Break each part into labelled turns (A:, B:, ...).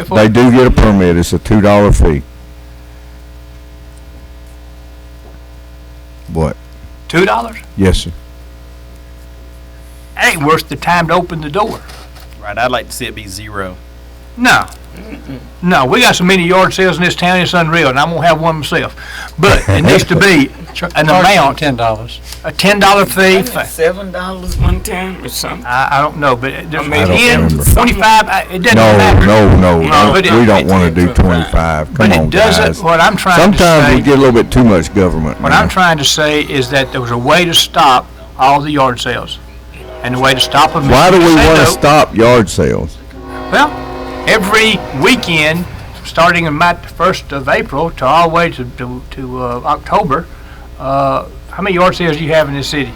A: If
B: They do get a permit, it's a two dollar fee. What?
A: Two dollars?
B: Yes, sir.
A: That ain't worth the time to open the door.
C: Right, I'd like to see it be zero.
A: No. No, we got so many yard sales in this town, it's unreal, and I'm gonna have one myself. But it needs to be an amount,
D: Ten dollars.
A: a ten dollar fee.
E: Wasn't it Seven dollars one time or something.
A: I, I don't know, but it- there's
E: mean, I
B: don't
A: ten,
B: remember.
A: twenty-five, I- it doesn't
B: No,
A: matter.
B: no, no, don't-
A: but it-
B: we don't wanna
E: it's-
B: do twenty-five,
A: But
B: come
A: it
B: on, guys.
A: doesn't, what I'm trying to
B: Sometimes we
A: say,
B: get a little bit too much government,
A: what I'm
B: man.
A: trying to say is that there was a way to stop all the yard sales. And the way to stop them. is
B: Why do
A: to
B: we
A: say
B: wanna
A: no.
B: stop yard sales?
A: Well, every weekend, starting in my first of April to all the way to, to, to, uh, October, uh, how many yard sales do you have in this city?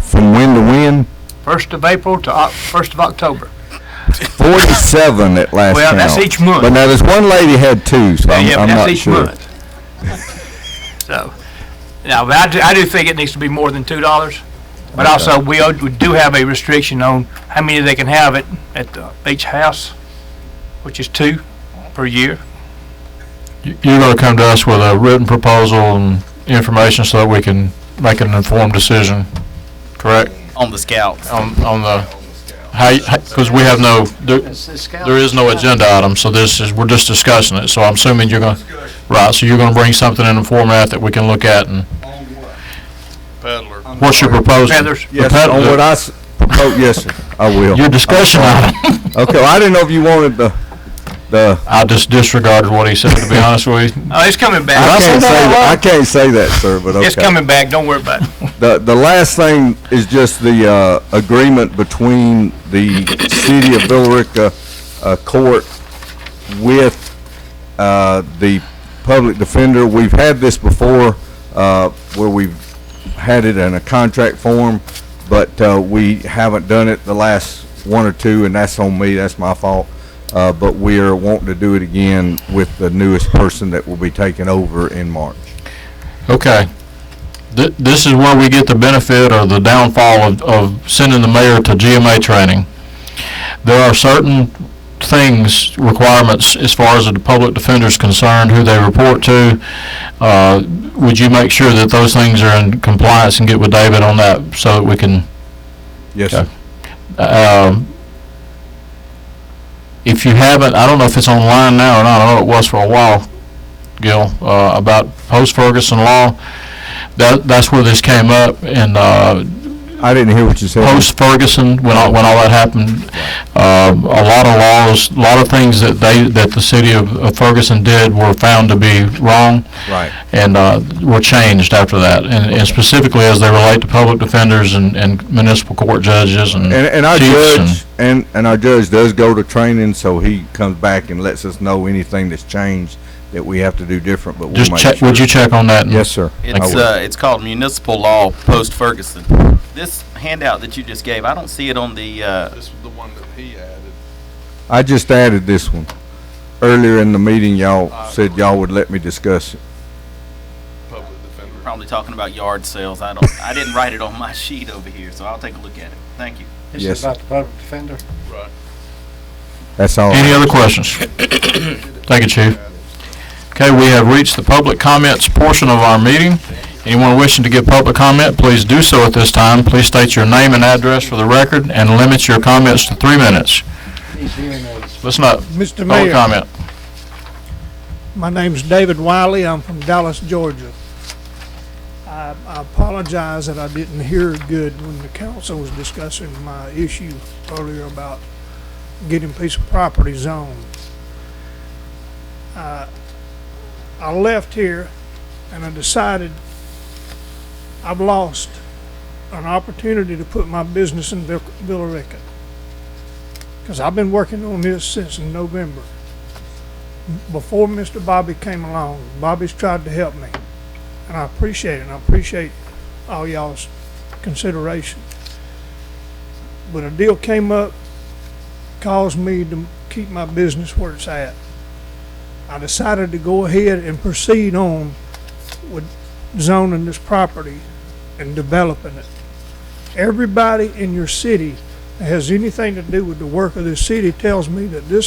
B: From when to when?
A: First of April to Oc- first of October.
B: Forty-seven at last
A: Well,
B: count.
A: that's each month.
B: But now, this one lady had two, so
A: Yeah,
B: I'm,
A: but
B: I'm
A: that's
B: not
A: each
B: sure.
A: month. So, now, but I do, I do think it needs to be more than two dollars. But also, we, o- we do have a restriction on how many they can have at, at the- each house, which is two per year.
F: You- You're going to come to us with a written proposal and information so that we can make an informed decision, correct?
C: On the scouts.
F: On, on the, how, because we have no, there, there is no agenda item, so this is, we're just discussing it. So I'm assuming you're going, to right, so you're going to bring something in a format that we can look at and. Peddler. What's your proposal?
A: Feathers.
B: Yes, sir, on what I s- propose, yes, sir, I will.
F: Your discussion item.
B: Okay, well, I didn't know if you wanted the, the,
F: I just disregarded what he said, to be honest with you.
A: Oh, it's coming back.
B: I can't
F: that
B: say,
F: out
B: I
F: loud?
B: can't say that, sir, but okay.
A: It's coming back, don't worry about it.
B: The, the last thing is just the, uh, agreement between the city of Billerica, uh, court with, uh, the public defender. We've had this before, uh, where we've had it in a contract form, but, uh, we haven't done it the last one or two, and that's on me, that's my fault. Uh, but we are wanting to do it again with the newest person that will be taking over in March.
F: Okay. Th- This is where we get the benefit or the downfall of, of sending the mayor to GMA training. There are certain things, requirements, as far as the public defender's concerned, who they report to. Uh, Would you make sure that those things are in compliance and get with David on that so that we can
B: Yes, sir.
F: Okay. um, if you haven't, I don't know if it's online now or not, I know it was for a while, Gil, uh, about post-Ferguson law. That, that's where this came up, and, uh,
B: I didn't hear what you said.
F: post-Ferguson, when all, when all that happened, um, a lot of laws, a lot of things that they, that the city of of Ferguson did were found to be wrong
B: Right.
F: and uh, were changed after that, and and specifically as they relate to public defenders and and municipal court judges and
B: And, and our
F: chiefs and-
B: judge and, and our judge does go to training, so he comes back and lets us know anything that's changed that we have to do different. But we'll
F: Just
B: make
F: check,
B: sure.
F: would you check on that? and-
B: Yes, sir. I
C: It's
B: will.
C: uh, it's called municipal law post Ferguson. This handout that you just gave, I don't see it on the. Uh,
G: This was the one that he added.
B: I just added this one earlier in the meeting. Y'all said y'all would let me discuss it.
G: Public defender.
C: probably talking about yard sales. I don't. I didn't write it on my sheet over here, so I'll take a look at it. Thank you.
D: This
B: Yes,
D: is
B: sir.
D: about the public defender.
B: That's all.
F: Any other questions? Thank you, Chief. Okay, we have reached the public comments portion of our meeting. Anyone wishing to give public comment, please do so at this time. Please state your name and address for the record and limit your comments to three minutes.
D: He's hearing aids.
F: Listen up,
H: Mr.
F: public
H: Mayor,
F: comment.
H: my name's David Wiley. I'm from Dallas, Georgia. I I apologize that I didn't hear good when the council was discussing my issue earlier about getting piece of property zoned. Uh, I left here and I decided I've lost an opportunity to put my business in Vil- Villarica. Because I've been working on this since November before Mr. Bobby came along, Bobby's tried to help me, and I appreciate it, and I appreciate all y'all's consideration. But a deal came up, caused me to keep my business where it's at. I decided to go ahead and proceed on with zoning this property and developing it. Everybody in your city that has anything to do with the work of this city tells me that this